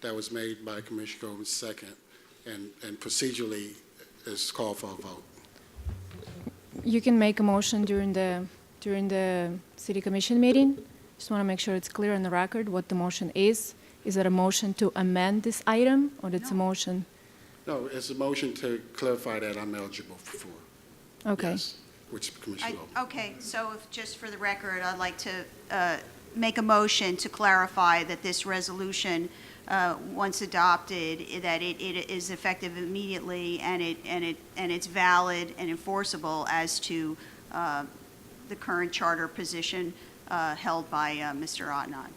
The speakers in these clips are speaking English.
that was made by Commissioner Groves, second, and and procedurally is called for a vote. You can make a motion during the, during the city commission meeting. Just want to make sure it's clear on the record what the motion is. Is it a motion to amend this item, or it's a motion? No, it's a motion to clarify that I'm eligible for. Okay. Yes, Which I- Commissioner Groves. Okay, so if- just for the record, I'd like to uh, make a motion to clarify that this resolution, uh, once adopted, i- that it it is effective immediately and it, and it, and it's valid and enforceable as to uh, the current charter position uh, held by uh, Mr. Ottenot.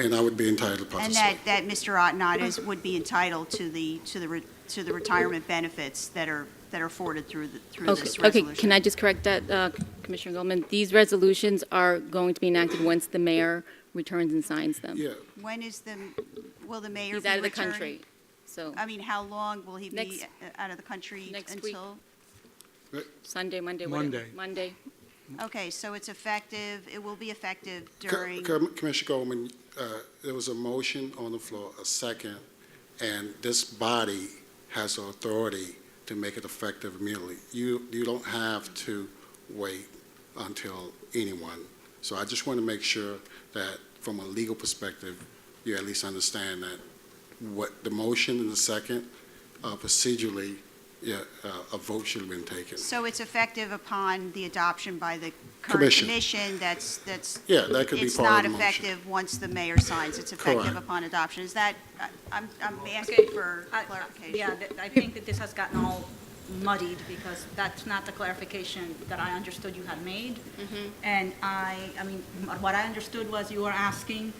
And I would be entitled to And participate. that, that Mr. Ottenot is, would be entitled to the, to the, re- to the retirement benefits that are, that are afforded through, the- through this Okay, okay, resolution. can I just correct that, uh, Commissioner Goldman? These resolutions are going to be enacted once the mayor returns and signs them. Yeah, When is the, will the mayor Uh, be He's out of the returning? country, so I mean, how long will he be Next- uh, out of the country next week. until? Sunday, Monday, whatever. Monday. Monday. Okay, so it's effective, it will be effective Co- during, Com- Commissioner Goldman, uh, there was a motion on the floor, a second, and this body has the authority to make it effective immediately. You, you don't have to wait until anyone. So I just want to make sure that from a legal perspective, you at least understand that what the motion and the second, uh, procedurally, yeah, uh, a vote should have been taken. so it's effective upon the adoption by the current Commission. commission, that's, that's, Yeah, that could be it's part not of the motion. effective once the mayor signs, it's effective Correct. upon adoption. Is that, I- I'm, I'm Okay, asking for I- I- clarification. Yeah, th- I think that this has gotten all muddied because that's not the clarification that I understood you had made. And I, I mean, m- what I understood was you were asking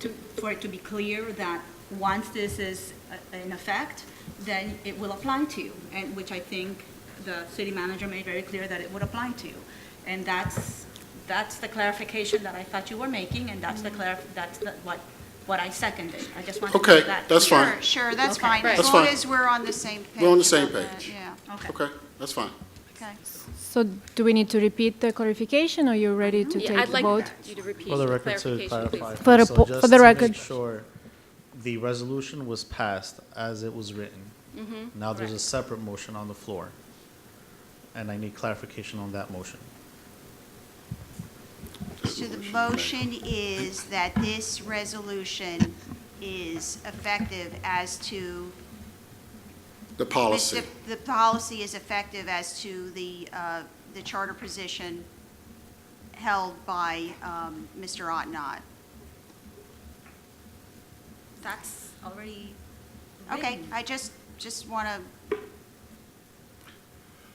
to, for it to be clear that once this is uh, in effect, then it will apply to you, and which I think the city manager made very clear that it would apply to you. And that's, that's the clarification that I thought you were making, and that's the clar, that's the, what, what I seconded. I just wanted to Okay, make that. that's clear. fine. Sure, sure, that's Okay. fine, as That's long fine. as we're on the same page. We're on the same about that, page. Yeah, Okay. Okay, that's fine. okay. So do we need to repeat the clarification, or you're ready to Yeah, take I'd the like vote? you to repeat For the the record, to clarification, clarify. please. For the so po- just for the to make record. Sure, the resolution was passed as it was written. Now there's Mm-hmm. a correct. separate motion on the floor. And I need clarification on that motion. So the motion is that this resolution is effective as to. The policy. The the policy is effective as to the, uh, the charter position held by um, Mr. Ottenot. That's already Okay, written. I just, just want to,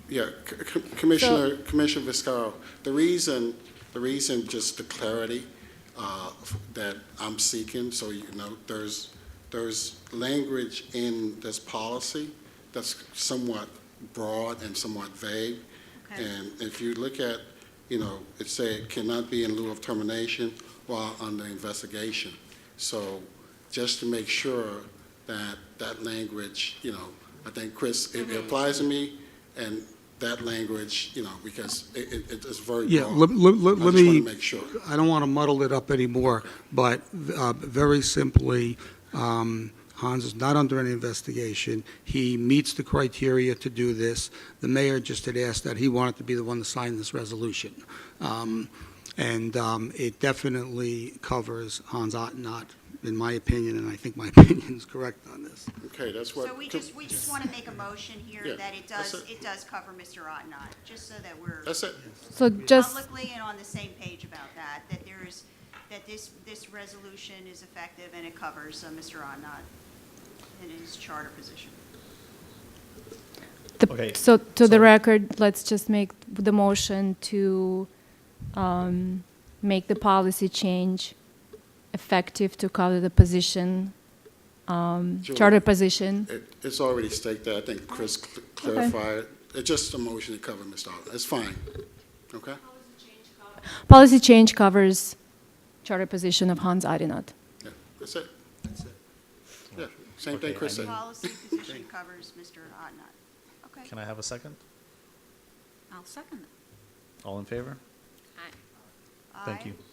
Yeah, C- C- Commissioner, Commissioner Viscaro, the reason, the reason, just the clarity uh, f- that I'm seeking, so you know, there's, there's language in this policy that's somewhat broad and somewhat vague. Okay. And if you look at, you know, it say it cannot be in lieu of termination while under investigation. So just to make sure that that language, you know, I think, Chris, it it Mm-hmm. applies to me, and that language, you know, because it, it- it is very Yeah, broad. let, let, I let- just let want me. to make sure. I don't want to muddle it up anymore, but uh, very simply, um, Hans is not under any investigation. He meets the criteria to do this. The mayor just had asked that he wanted to be the one to sign this resolution. Um, And um, it definitely covers Hans Ottenot, in my opinion, and I think my opinion is correct on this. Okay, that's what. so we just, we just want to make a motion here Yeah, that it that's does, it. it does cover Mr. Ottenot, just so that we're. That's it. So just, publicly and on the same page about that, that there is, that this, this resolution is effective and it covers uh, Mr. Ottenot in his charter position. the- Okay, so to the so- record, let's just make the motion to um, make the policy change effective to cover the position, um, Sure. Uh, charter position. It, it's already staked out. I think Chris Uh-huh. cl- clarified. It's just a motion to cover Ms. Dollar. It's fine. Okay? Policy change covers charter position of Hans Arinat. Yeah, that's it. Yeah, same thing Okay, Chris I said. need- Policy position covers Mr. Ottenot. Okay. Can I have a second? I'll second it. All in favor? Aye. Thank you. Aye.